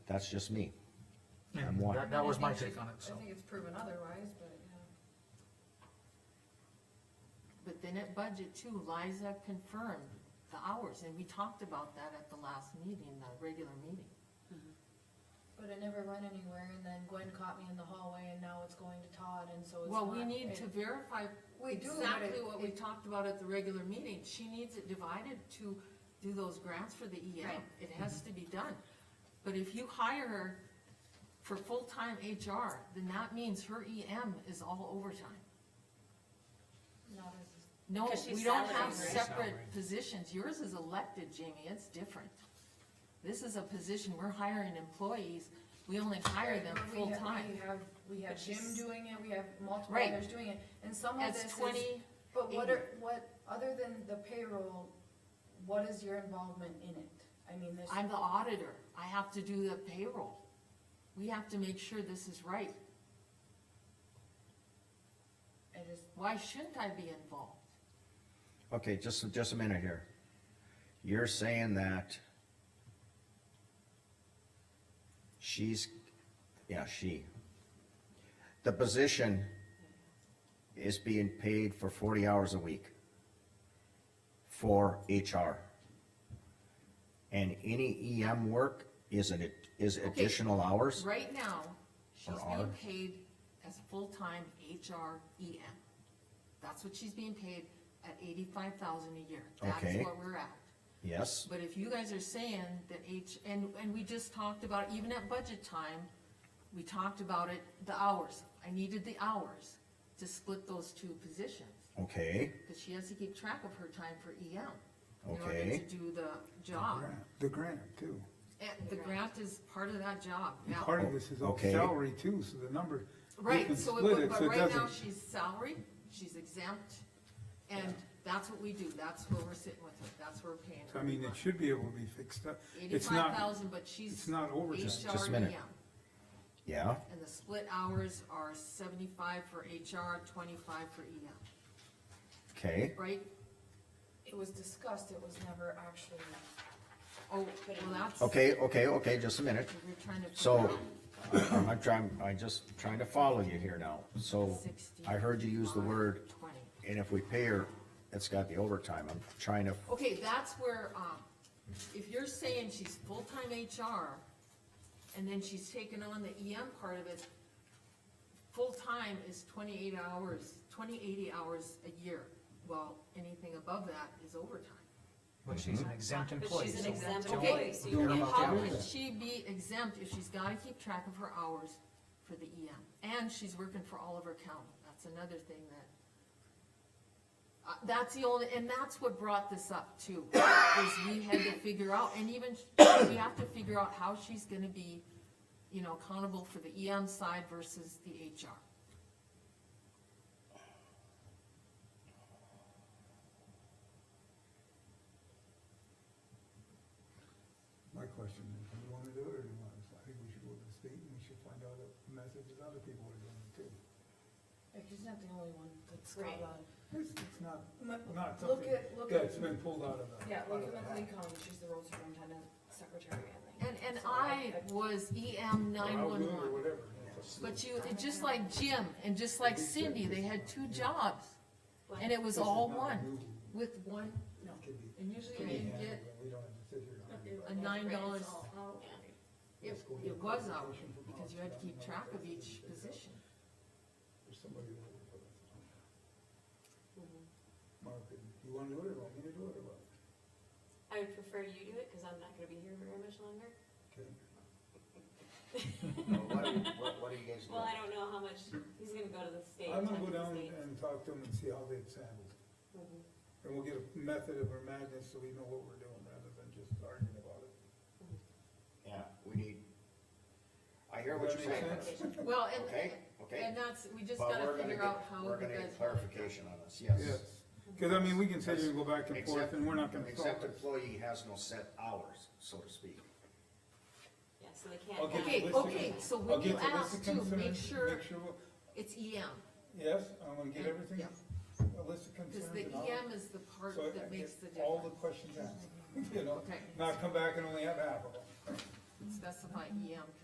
That's just me. Yeah, I'm one. That, that was I my think take on it, so. I think it's proven otherwise, but, yeah. But then at budget too, Liza confirmed the hours, and we talked about that at the last meeting, the regular meeting. But it never went anywhere, and then Gwen caught me in the hallway, and now it's going to Todd, and so it's Well, not. we need to it- verify We do, but exactly it, what we it, talked about at the regular meeting. She needs it divided to do those grants for the EM. Right. It has to be done. But if you hire her for full-time HR, then that means her EM is all overtime. not as, No, 'Cause she's we don't salaried, have right? separate Salaried. positions. Yours is elected, Jamie. It's different. This is a position, we're hiring employees. We only hire them But we have- We full-time. have, we have But Jim she's- doing it, we have multiple Right. others doing it, and some of That's this is, twenty, but what 80. are, what, other than the payroll, what is your involvement in it? I mean, this, I'm the auditor. I have to do the payroll. We have to make sure this is right. it is, Why shouldn't I be involved? Okay, just, just a minute here. You're saying that she's, yeah, she. The position is being paid for forty hours a week for HR. And any EM work is an, is additional hours? Right now, she's being hours? paid as full-time HR EM. That's what she's being paid at eighty-five thousand a year. That's Okay. what we're at. Yes, But if you guys are saying that H, and, and we just talked about, even at budget time, we talked about it, the hours. I needed the hours to split those two positions, okay, because she has to keep track of her time for EM. In order Okay. to do the job. grant- The grant too. And the grant is part of that job, And yeah. Part of this is all Okay. salary too, so the number, you Right, can so, split it- it, but so it right now, doesn't. she's salary, she's exempt, and that's what we do, that's where we're sitting with her, that's where we're paying her. I mean, it money. should be able to be fixed up. It's Eighty-five not, thousand, but she's. it's not overtime. Just- just a minute. HREM. yeah, And the split hours are seventy-five for HR, twenty-five for EM, okay, right? it was discussed, it was never actually, Oh, well, that's. okay, okay, okay, just a minute. We're trying to. figure So, out. I'm I'm trying, I'm just trying to follow you here now. So, oh, I heard you use the 65, word, 20. and if we pay her, it's got the overtime. I'm trying to, Okay, that's where, um, if you're saying she's full-time HR, and then she's taken on the EM part of it, full-time is twenty-eight hours, twenty, eighty hours a year. Well, anything above that is overtime. But she's an exempt But employee. she's an so exempt don't Okay, employee, so you care and about how the can hours. she be exempt if she's gotta keep track of her hours for the EM? And she's working for Oliver County, that's another thing that. Uh, that's the only, and that's what brought this up too, is we had to figure out, and even, we have to figure out how she's gonna be, you know, accountable for the EM side versus the HR. My question is, do you wanna do it or do you want us, I think we should go to the state and we should find out the messages other people are doing too. like, he's not the only one that's got Right. a. It's, it's not, M- not Look something at, look at, that's been pulled out of the. yeah, out look of at the Mentally hat. Collins, she's the road superintendent, secretary, I think. And, and So I was E EM Or I'll do it nine-one-one. Or whatever. It's- But you, it- just like Jim and just like Cindy, they had two jobs. And it was all one, with one, No. It could be- and usually I could be didn't handled, get, but We don't have to sit here. and argue about a it. nine Right, it's dollars. all out. it, it was hourly, because you had to keep track of each position. There's somebody that will put us on. Mm-hmm. Mark, you wanna do it or want me to do it or what? I would prefer you do it, cause I'm not gonna be here very much longer. Okay. what are you, what, what are you guys Well, I don't know how much, he's gonna go to the state. I'm talk gonna go down to the state. and talk to them and see how they've handled. it. Mhm. And we'll get a method of our madness so we know what we're doing rather than just arguing about it. Yeah, we need, I hear what Does that you're make saying. sense? Well, Okay, and, okay. and that's, we just But gotta we're gonna figure out get, how we're you gonna get guys. clarification on this, yes. Yes, cause I mean, we can sit here and go back and Except- forth and we're not gonna solve Except it. employee has no set hours, so to speak. Yeah, so they can't. I'll get Okay, the list of- okay, so I'll when get you the list of ask too, make concerns, sure Make sure, we'll- it's E EM, yes, I'm gonna get everything, Yeah. a list of concerns. cause the and all- EM is the part so I that get makes the All the difference. questions asked, you know, Okay. not come back and only have half of them. specify E EM